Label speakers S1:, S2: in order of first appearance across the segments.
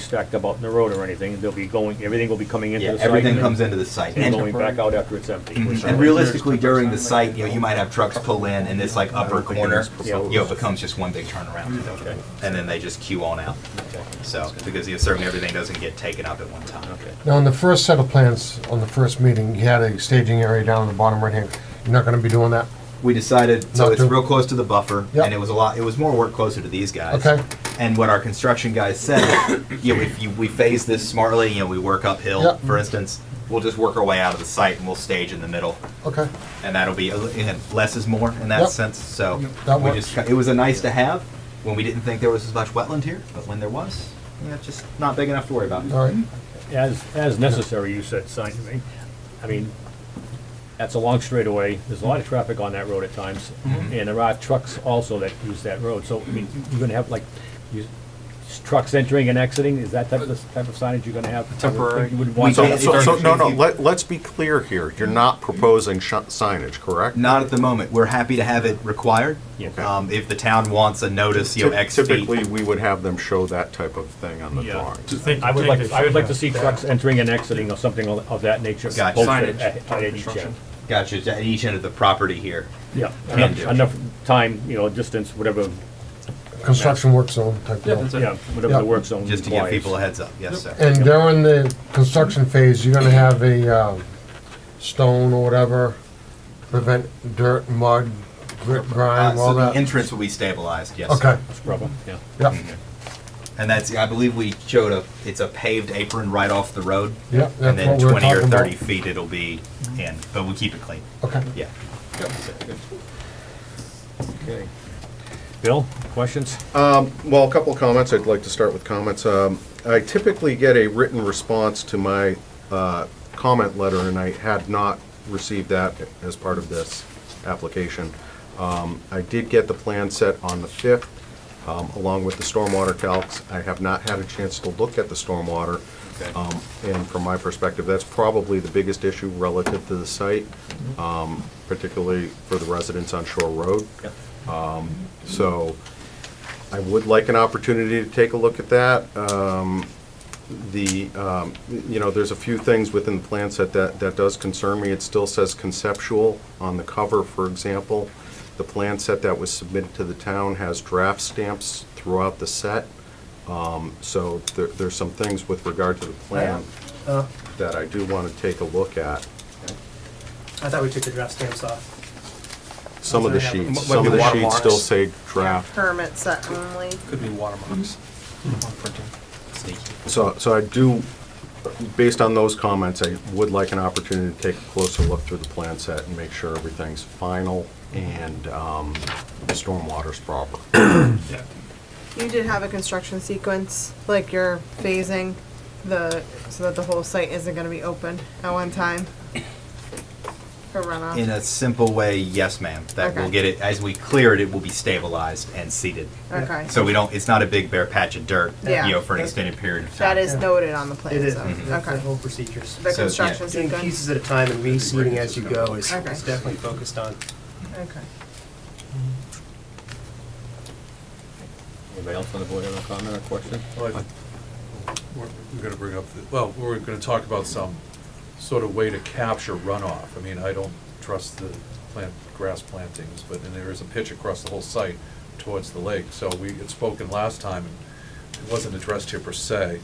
S1: stacked up out in the road or anything, they'll be going, everything will be coming into
S2: Yeah,
S1: the site.
S2: everything
S1: and
S2: comes Mm-hmm. into the site.
S1: And
S2: And
S1: going back out after it's empty. which-
S2: and realistically, during the site, you know, you might have trucks pull in and this like upper corner, you know, becomes just one big turnaround.
S1: Okay,
S2: And then they just queue on out. So, because you know, certainly everything doesn't get taken up at one time.
S1: okay.
S3: Now, on the first set of plans, on the first meeting, you had a staging area down in the bottom right hand. You're not gonna be doing that?
S2: We decided, so
S3: Not
S2: it's
S3: to-
S2: real close to the buffer
S3: Yep.
S2: and it was a lot, it was more work closer to these guys.
S3: Okay.
S2: And what our construction guys said, you know, if you, we phase this smartly, you know, we work uphill,
S3: Yep.
S2: for instance, we'll just work our way out of the site and we'll stage in the middle.
S3: Okay,
S2: and that'll be, and less is more in that
S3: Yep.
S2: sense, so.
S3: That
S2: we
S3: works.
S2: just It was a nice to have, when we didn't think there was as much wetland here, but when there was, yeah, it's just not big enough to worry about.
S3: all right.
S4: Mm-hmm.
S1: As, as necessary, you said, sign, I mean, I mean, that's a long straightaway, there's a lot of traffic on that road at times,
S2: Mm-hmm.
S1: and there are trucks also that use that road, so, I mean, you're gonna have like, you, trucks entering and exiting, is that type of, type of signage you're gonna have?
S4: Temporary.
S1: You would want
S2: We
S5: So,
S2: can't-
S1: that,
S5: so, so, no, no, let, let's be clear here. You're not proposing sh- signage, correct?
S2: Not at the moment, we're happy to have it required.
S1: Yeah.
S2: Um, if the town wants a notice, you know, X feet.
S5: Typically, we would have them show that type of thing on the
S1: Yeah.
S5: drawings.
S1: I would like, I would like to see trucks entering and exiting or something of of that nature.
S2: Gotcha.
S1: posted
S4: Signage.
S1: at- At each end.
S2: Gotcha, it's at each end of the property here.
S1: Yeah,
S2: Can do.
S1: enough, enough time, you know, distance, whatever,
S3: Construction work zone type
S4: Yeah,
S3: deal.
S4: that's it.
S1: yeah, whatever the
S3: Yeah.
S1: work zone
S2: Just to give people a
S1: requires.
S2: heads up, yes, sir.
S3: And during the construction phase, you're gonna have a, um, stone or whatever, prevent dirt, mud, grit,
S2: Uh,
S3: grime,
S2: so
S3: all
S2: the
S3: that?
S2: entrance will be stabilized, yes, sir.
S3: Okay,
S1: Scrubber, yeah.
S3: yep,
S2: And that's, I believe we showed a, it's a paved apron right off the road.
S3: yep,
S2: And
S3: that's
S2: then
S3: what we we're
S2: twenty or
S3: talking about.
S2: thirty feet it'll be in, but we'll keep it clean,
S3: Okay.
S2: yeah.
S1: Okay. Bill, questions?
S5: Well, a couple of comments. I'd like to start with comments. Um, I typically get a written response to my uh, comment letter, and I had not received that as part of this application. Um, I did get the plan set on the 5th, um, along with the stormwater calcs. I have not had a chance to look at the stormwater.
S2: Okay.
S5: Um, And from my perspective, that's probably the biggest issue relative to the site, um, particularly for the residents on Shore Road.
S2: Yep.
S5: So I would like an opportunity to take a look at that. Um, The, um, you know, there's a few things within the plan set that, that does concern me. It still says conceptual on the cover, for example. The plan set that was submitted to the town has draft stamps throughout the set. Um, So there, there's some things with regard to the plan
S6: Oh,
S5: that I do want to take a look at.
S6: I thought we took the draft stamps off.
S5: Some of the
S6: Might be
S5: sheets, some of the sheets still
S4: watermarks.
S5: say draft.
S7: permit set only.
S4: Could be watermarks on printing.
S2: Sneaky.
S5: So, so I do, based on those comments, I would like an opportunity to take a closer look through the plan set and make sure everything's final and um, the stormwater's proper.
S4: Yeah.
S7: You did have a construction sequence, like you're phasing the, so that the whole site isn't gonna be open at one time for
S2: In
S7: runoff.
S2: a simple way, yes, ma'am. That will
S7: Okay.
S2: get it, as we clear it, it will be stabilized and seeded.
S7: Okay,
S2: So we don't, it's not a big bare patch of dirt, you
S7: Yeah.
S2: know, for an extended period of time.
S7: that is noted on the plan,
S6: It is, Mm-hmm.
S7: so,
S6: that's the
S7: okay.
S6: whole procedures.
S7: The
S2: So, yeah.
S7: construction
S6: Doing
S7: sequence,
S6: pieces at a time and reseeding as you go is
S7: Okay.
S6: is definitely focused on.
S7: okay.
S1: Anybody else on the board have a comment or question?
S8: Well, I- We're we're gonna bring up, the- well, we're gonna talk about some sort of way to capture runoff. I mean, I don't trust the plant, grass plantings, but, and there is a pitch across the whole site towards the lake. So we had spoken last time, and it wasn't addressed here per se,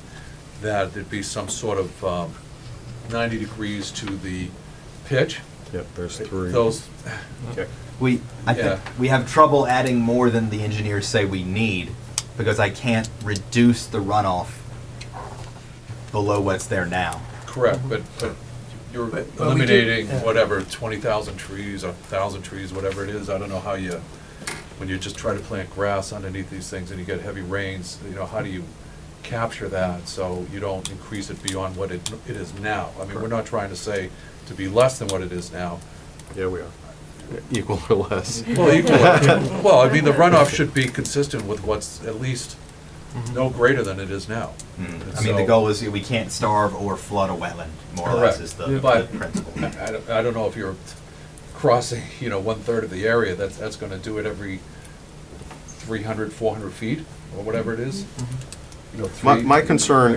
S8: that there'd be some sort of um, ninety degrees to the pitch.
S5: Yep, there's three.
S8: Those,
S1: Check.
S2: We, I think,
S8: Yeah.
S2: we have trouble adding more than the engineers say we need, because I can't reduce the runoff below what's there now.
S8: correct, but, but you're
S6: Mm-hmm. But- but we did-
S8: eliminating
S6: yeah.
S8: whatever, twenty thousand trees or thousand trees, whatever it is. I don't know how you, when you just try to plant grass underneath these things and you get heavy rains, you know, how do you capture that so you don't increase it beyond what it, it is now? I mean, we're not trying to say to be less than what it is now.
S5: Yeah, we are. Equal or less.
S8: Well, equal, well, I mean, the runoff should be consistent with what's at least no greater than it is now.
S2: Mm-hmm. Mm. I mean, the
S8: So-
S2: goal is we can't starve or flood a wetland, more or less
S8: Correct.
S2: is the
S8: Yeah.
S2: the
S8: But-
S2: principle.
S8: I don't, I don't know if you're crossing, you know, one-third of the area, that's, that's gonna do it every 300, 400 feet, or whatever it is. You know,
S5: My,
S8: three-
S5: my concern